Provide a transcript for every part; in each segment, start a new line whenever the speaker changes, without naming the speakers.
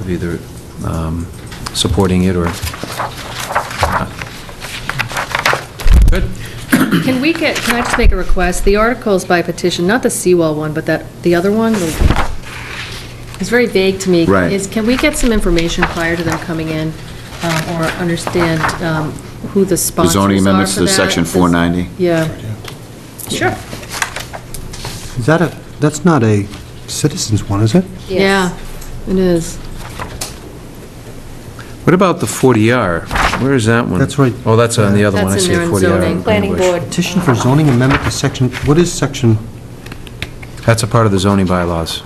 of either um, supporting it or not. Good.
Can we get, can I just make a request? The article is by petition, not the seawall one, but that, the other one, the- it's very vague to me.
Right.
Is, can we get some information prior to them coming in, um, or understand um, who the
The
sponsors are for
zoning amendments to
that?
section
This-
490?
Yeah. Sure.
Is that a, that's not a citizens one, is it?
Yeah, it is.
What about the 40R? Where is that one?
That's right.
Oh, that's on the other one, I
That's in
see a
there in
40R.
zoning.
Planning
English.
board.
Petition for zoning amendment to section, what is section?
That's a part of the zoning bylaws.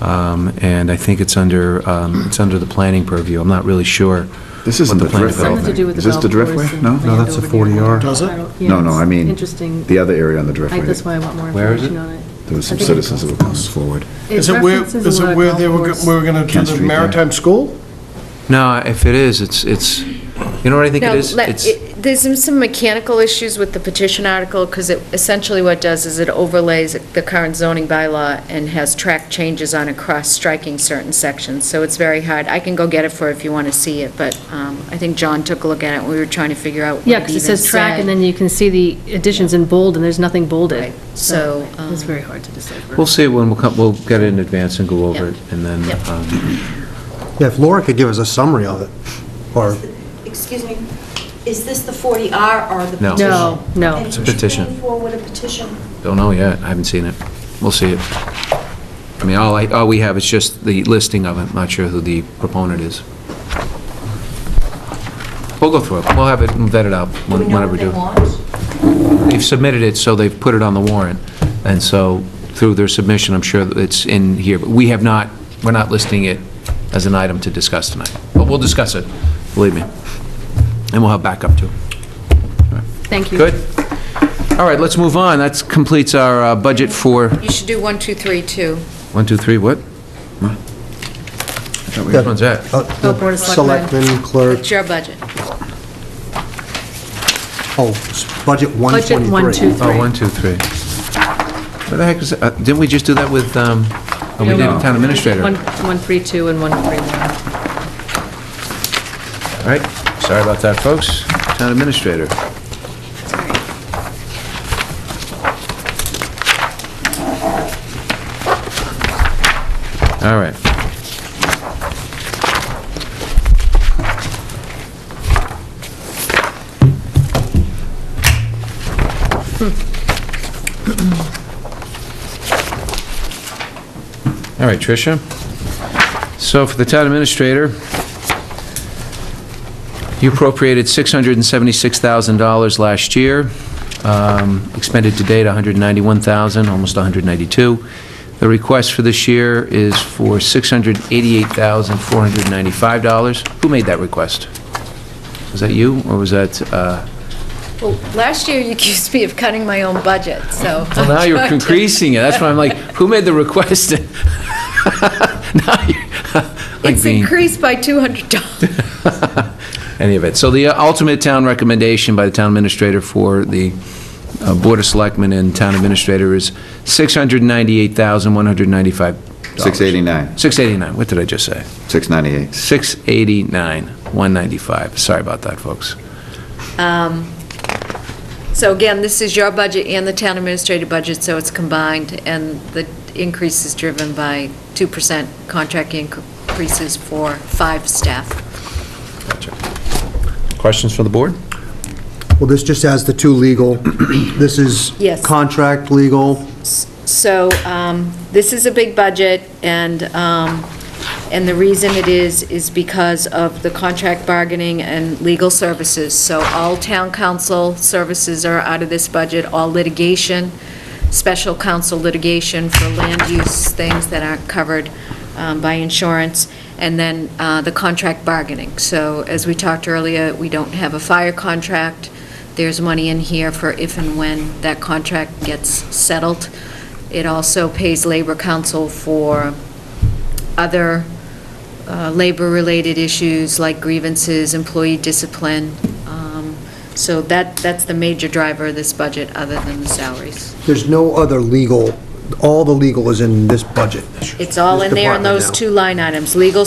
Um, And I think it's under, um, it's under the planning purview. I'm not really sure.
This
what
isn't the
plan
drift, though.
Something to do with the
Is this
golf
the
course.
driftway?
and
No? No,
land
that's a
over near
40R.
it.
Does it?
I don't- yeah,
No, no, I
it's
mean,
Interesting.
the other area on the
I-
driftway.
That's why I want more
Where is it?
information on it.
There was some
I think-
citizens that were coming forward.
It
Is it where,
references a
is
lot
it
of
where
golf
they were,
course.
go- we were going to do
Kent
the
Street, yeah.
maritime school?
No, if it is, it's, it's, you know what I think it
No,
is?
let-
It's-
it- there's some- some mechanical issues with the petition article, because it, essentially what it does is it overlays the current zoning bylaw and has track changes on it, cross-striking certain sections, so it's very hard. I can go get it for if you want to see it, but um, I think John took a look at it, and we were trying to figure out what it
Yeah, because it
even
says track, and
said.
then you can see the additions in bold, and there's nothing bolded.
Right, so,
It's
um,
very hard to decipher.
We'll see when we'll come, we'll get it in advance and go over
Yep.
it, and then,
Yep.
um,
Yeah, if Laura could give us a summary of it, or,
Excuse me, is this the 40R or the
No.
petition?
No, no.
And
It's a petition.
bring forward a petition.
don't know yet, I haven't seen it. We'll see it. I mean, all I, all we have is just the listing of it, not sure who the proponent is. We'll go through it, we'll have it vetted out when- whenever we do. They've submitted it, so they've put it on the warrant, and so through their submission, I'm sure that it's in here, but we have not, we're not listing it as an item to discuss tonight, but we'll discuss it, believe me. And we'll have backup too.
Thank you.
Good? All right, let's move on. That completes our uh, budget for,
you should do one, two, three, two.
one, two, three, what? Which one's that?
uh,
Oh, Board of Selectmen.
selectmen, clerk,
It's your budget.
oh, s- budget 123.
Budget one, two,
Oh,
three.
one, two, three. What the heck is, that? Uh, didn't we just do that with, um, oh, we did it with town administrator?
One,
All
one, three, two, and one, three, one.
right, sorry about that, folks. Town administrator. All right. All right, Tricia. So for the town administrator, you appropriated $676,000 last year, um, expended to date $191,000, almost $192,000. The request for this year is for $688,495. Who made that request? Was that you, or was that, uh,
Well, last year you accused me of cutting my own budget, so.
well, now you're
I'm trying to-
increasing it, that's why I'm like, who made the request? Now you're- like
It's
being-
increased by $200.
any of it. So the uh, ultimate town recommendation by the town administrator for the uh, Board of Selectmen and town administrator is $698,195.
689,
689, what did I just say?
698.
689, 195. Sorry about that, folks.
So again, this is your budget and the town administrator budget, so it's combined, and the increase is driven by 2% contract increases for five staff.
Questions from the board?
Well, this just has the two legal, this is
Yes.
contract legal,
So um, this is a big budget, and, um, and the reason it is, is because of the contract bargaining and legal services. So all town council services are out of this budget, all litigation, special counsel litigation for land use things that aren't covered um, by insurance, and then uh, the contract bargaining. So as we talked earlier, we don't have a fire contract. There's money in here for if and when that contract gets settled. It also pays Labor Council for other uh, labor-related issues like grievances, employee discipline. Um, So that, that's the major driver of this budget, other than the salaries.
there's no other legal, all the legal is in this budget.
It's all
This
in there in
department
those
now.
two line items, legal